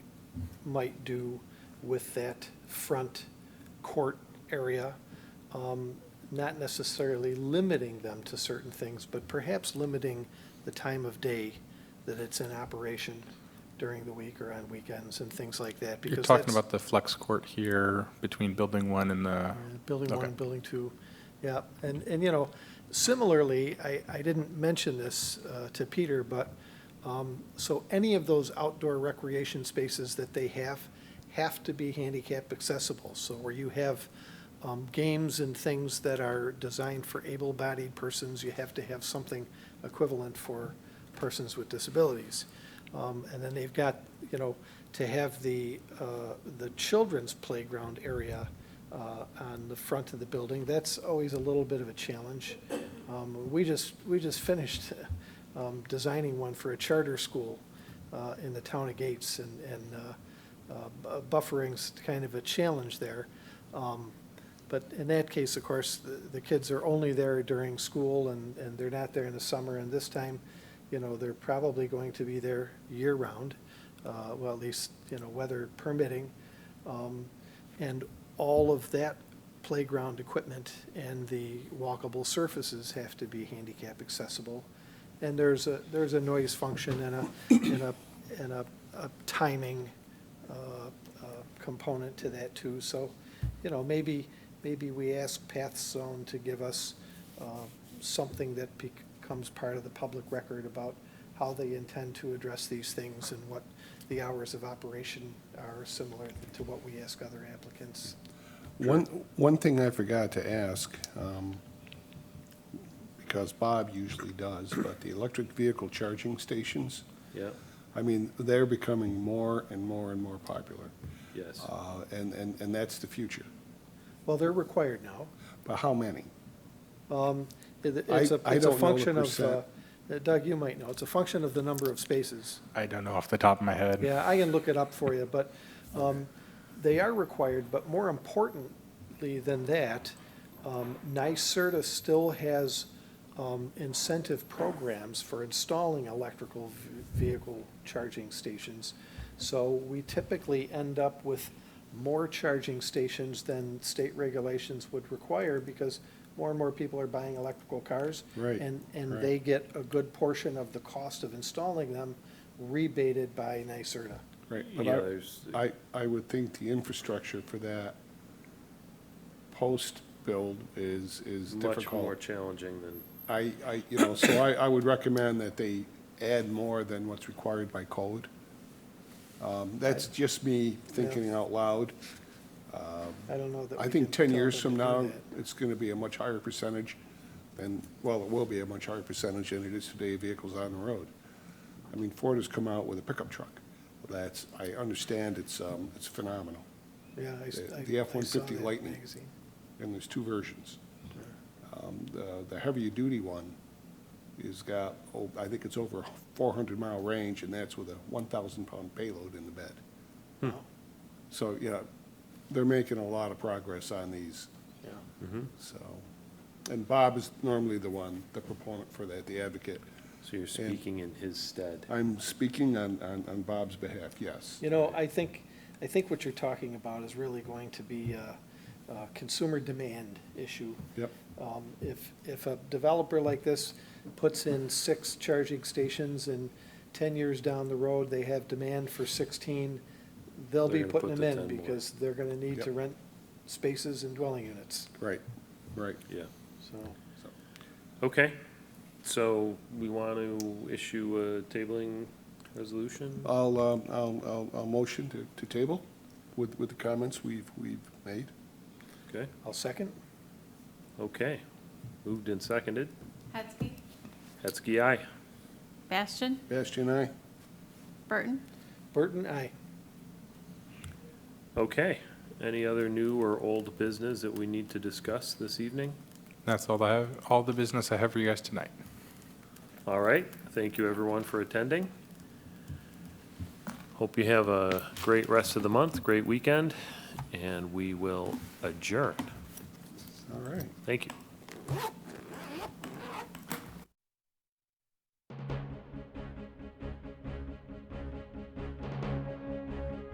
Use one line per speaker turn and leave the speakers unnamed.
might do with that front court area. Um, Not necessarily limiting them to certain things, but perhaps limiting the time of day that it's in operation during the week or on weekends and things like that.
You're
because
talking
that's-
about the flex court here between building one and the,
yeah, Building one
Okay.
and building two, yeah. And, and, you know, similarly, I, I didn't mention this uh, to Peter, but, um, so any of those outdoor recreation spaces that they have, have to be handicap accessible. So where you have um, games and things that are designed for able-bodied persons, you have to have something equivalent for persons with disabilities. Um, And then they've got, you know, to have the, uh, the children's playground area uh, on the front of the building, that's always a little bit of a challenge. Um, We just, we just finished um, designing one for a charter school uh, in the town of Gates, and, and uh, uh, bu- buffering's kind of a challenge there. Um, But in that case, of course, the, the kids are only there during school, and, and they're not there in the summer, and this time, you know, they're probably going to be there year-round, uh, well, at least, you know, weather permitting. Um, And all of that playground equipment and the walkable surfaces have to be handicap accessible. And there's a, there's a noise function and a, and a, and a, a timing uh, uh, component to that too. So, you know, maybe, maybe we ask Path Zone to give us uh, something that becomes part of the public record about how they intend to address these things and what the hours of operation are similar to what we ask other applicants.
One, one thing I forgot to ask, um, because Bob usually does, but the electric vehicle charging stations,
Yeah,
I mean, they're becoming more and more and more popular.
yes.
Uh, And, and, and that's the future.
Well, they're required now.
But how many?
Um, it-
I-
It's a,
I
it's a
don't know the
function of, uh,
percent.
Doug, you might know, it's a function of the number of spaces.
I don't know off the top of my head.
Yeah, I can look it up for you, but um, they are required, but more importantly than that, um, NYSERDA still has um, incentive programs for installing electrical v- vehicle charging stations. So we typically end up with more charging stations than state regulations would require because more and more people are buying electrical cars.
Right,
And, and
right.
they get a good portion of the cost of installing them rebated by NYSERDA.
Right. But
Yeah,
I,
there's,
I, I would think the infrastructure for that post-build is, is
much more
difficult.
challenging than,
I, I, you know, so I, I would recommend that they add more than what's required by code. Um, That's just me thinking out loud.
I don't know that.
I
we
think
can
10
tell
years
them
from
to do
now,
that.
it's going to be a much higher percentage than, well, it will be a much higher percentage than it is today of vehicles on the road. I mean, Ford has come out with a pickup truck. That's, I understand it's, um, it's phenomenal.
Yeah. I s-
the-
I-
the
I
F-150
saw that in the
Lightning.
magazine.
and there's two versions. Um, The the heavier-duty one is got, oh, I think it's over 400-mile range, and that's with a 1,000-pound payload in the bed.
Wow.
So, yeah, they're making a lot of progress on these,
Yeah.
so. And Bob is normally the one, the proponent for that, the advocate.
so you're speaking in his stead.
I'm speaking on on on Bob's behalf, yes.
You know, I think, I think what you're talking about is really going to be a, a consumer demand issue.
Yep,
Um, If, if a developer like this puts in six charging stations and 10 years down the road, they have demand for 16, they'll be
They're
putting
gonna
them
put the
in
10 more.
because they're going to need to
Yep.
rent spaces and dwelling units,
right, right.
Yeah.
so.
Okay, so we want to issue a tabling resolution?
I'll, um, I'll, I'll- I'll motion to to table with with the comments we've we've made.
Okay,
I'll second.
okay. Moved and seconded.
Hetzke.
Hetzke, aye.
Bastian.
Bastian, aye?
Burton.
Burton, aye.
Okay. Any other new or old business that we need to discuss this evening?
That's all I have, all the business I have for you guys tonight.
All right, thank you everyone for attending. Hope you have a great rest of the month, great weekend, and we will adjourn.
All right.
Thank you.